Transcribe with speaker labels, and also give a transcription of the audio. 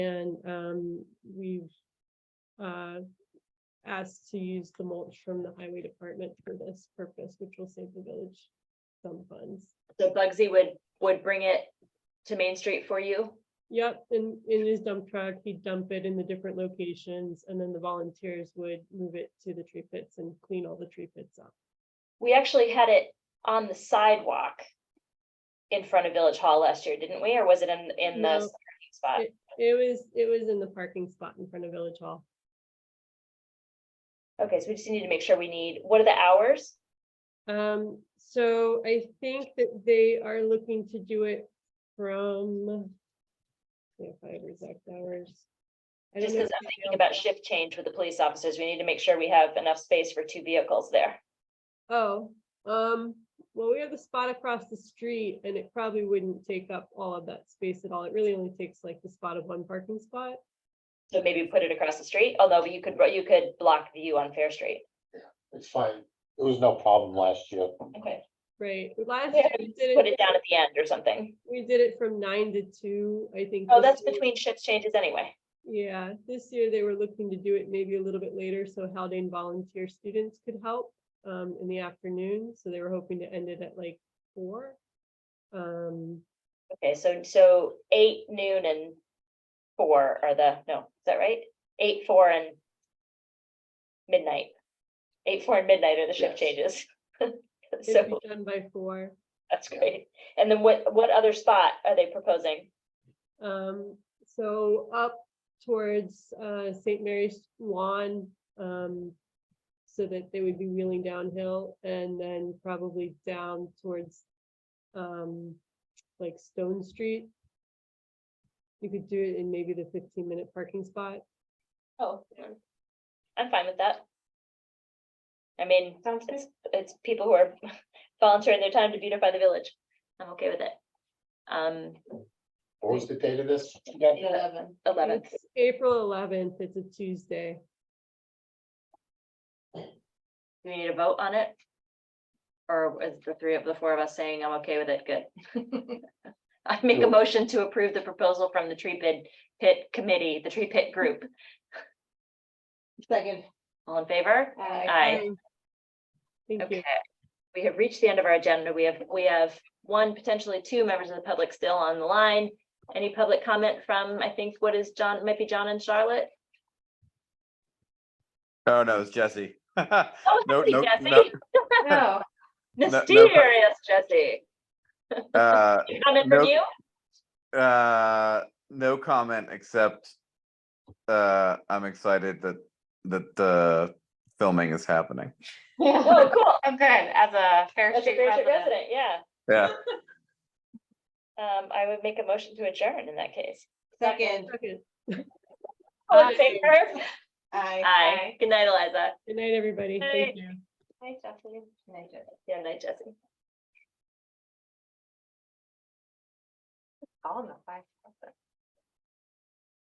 Speaker 1: And um, we've uh, asked to use the mulch from the highway department for this purpose, which will save the village some funds.
Speaker 2: So Bugsy would, would bring it to Main Street for you?
Speaker 1: Yep, and in his dump truck, he'd dump it in the different locations, and then the volunteers would move it to the tree pits and clean all the tree pits up.
Speaker 2: We actually had it on the sidewalk in front of Village Hall last year, didn't we? Or was it in, in
Speaker 1: No.
Speaker 2: the parking spot?
Speaker 1: It was, it was in the parking spot in front of Village Hall.
Speaker 2: Okay, so we just need to make sure we need, what are the hours?
Speaker 1: Um, so I think that they are looking to do it from. If I have exact hours. I don't
Speaker 2: Just
Speaker 1: know
Speaker 2: because
Speaker 1: if
Speaker 2: I'm
Speaker 1: they
Speaker 2: thinking
Speaker 1: know.
Speaker 2: about shift change with the police officers, we need to make sure we have enough space for two vehicles there.
Speaker 1: Oh, um, well, we have the spot across the street and it probably wouldn't take up all of that space at all. It really only takes like the spot of one parking spot.
Speaker 2: So maybe put it across the street, although you could, you could block view on Fair Street.
Speaker 3: It's fine. It was no problem last year.
Speaker 2: Okay,
Speaker 1: Right, last year
Speaker 2: Yeah,
Speaker 1: we
Speaker 2: put
Speaker 1: did
Speaker 2: it
Speaker 1: it,
Speaker 2: down at the end or something.
Speaker 1: we did it from nine to two, I think.
Speaker 2: Oh,
Speaker 1: this
Speaker 2: that's
Speaker 1: year-
Speaker 2: between shift changes anyway.
Speaker 1: Yeah, this year they were looking to do it maybe a little bit later, so Haldane volunteer students could help um in the afternoon, so they were hoping to end it at like four. Um,
Speaker 2: Okay, so, so eight, noon and four are the, no, is that right? Eight, four and midnight. Eight, four and midnight are the shift
Speaker 3: Yes.
Speaker 2: changes.
Speaker 1: it'd
Speaker 2: So
Speaker 1: be done by four.
Speaker 2: that's great. And then what, what other spot are they proposing?
Speaker 1: Um, so up towards uh Saint Mary's lawn, um. So that they would be wheeling downhill and then probably down towards um like Stone Street. You could do it in maybe the fifteen minute parking spot.
Speaker 2: Oh. I'm fine with that. I mean, it's, it's people who are volunteering their time to beautify the village. I'm okay with it. Um,
Speaker 3: What was the date of this?
Speaker 2: Eleven. Eleventh.
Speaker 1: It's April eleventh, it's a Tuesday.
Speaker 2: Do we need a vote on it? Or is the three of the four of us saying I'm okay with it? Good. I make a
Speaker 3: No.
Speaker 2: motion to approve the proposal from the tree pit, pit committee, the tree pit group.
Speaker 4: Second.
Speaker 2: All in favor? Aye.
Speaker 1: Thank you.
Speaker 2: Okay. We have reached the end of our agenda. We have, we have one, potentially two members of the public still on the line. Any public comment from, I think, what is John, might be John and Charlotte?
Speaker 5: Oh no, it's Jesse. no,
Speaker 2: Oh,
Speaker 5: no,
Speaker 2: Jesse,
Speaker 5: no.
Speaker 2: Jesse.
Speaker 4: No,
Speaker 5: no pub-
Speaker 2: Mysterious Jesse.
Speaker 5: Uh,
Speaker 2: Comment from
Speaker 5: No.
Speaker 2: you?
Speaker 5: uh, no comment except uh, I'm excited that that the filming is happening.
Speaker 2: Oh,
Speaker 4: yeah,
Speaker 2: cool.
Speaker 4: I'm good, as a Fair
Speaker 2: That's a
Speaker 4: Street
Speaker 2: Fair Street
Speaker 4: resident.
Speaker 2: resident, yeah.
Speaker 5: Yeah.
Speaker 2: Um, I would make a motion to adjourn in that case.
Speaker 4: Second.
Speaker 1: Okay.
Speaker 2: All in
Speaker 1: Aye.
Speaker 2: favor?
Speaker 4: Aye.
Speaker 2: Aye. Good night, Eliza.
Speaker 1: Good night, everybody.
Speaker 2: Night.
Speaker 1: Thank you.
Speaker 2: Night, Jesse. Night, Jesse. Yeah, night, Jesse.
Speaker 4: All in the five.